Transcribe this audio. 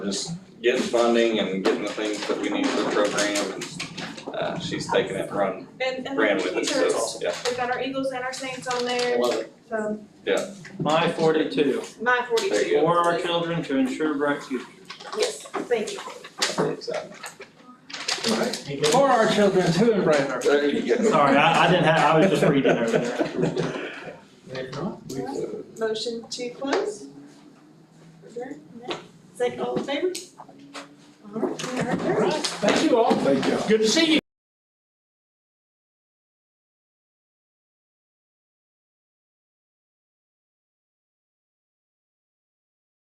just getting funding and getting the things that we need for the program and uh she's taken it and run, And and ran the with it, teachers, so, yeah. we've got our Eagles and our Saints on there, so My forty-two, my There forty-two. you for our children to ensure bright futures. Yes, thank you. Exactly. For our children to embrace our. There you go. Sorry, I, I didn't have, I was just reading over there. Motion to close? Adjourn? No? Is that all in favor? All right, we are adjourned. Thank you all. Thank you. Good to see you.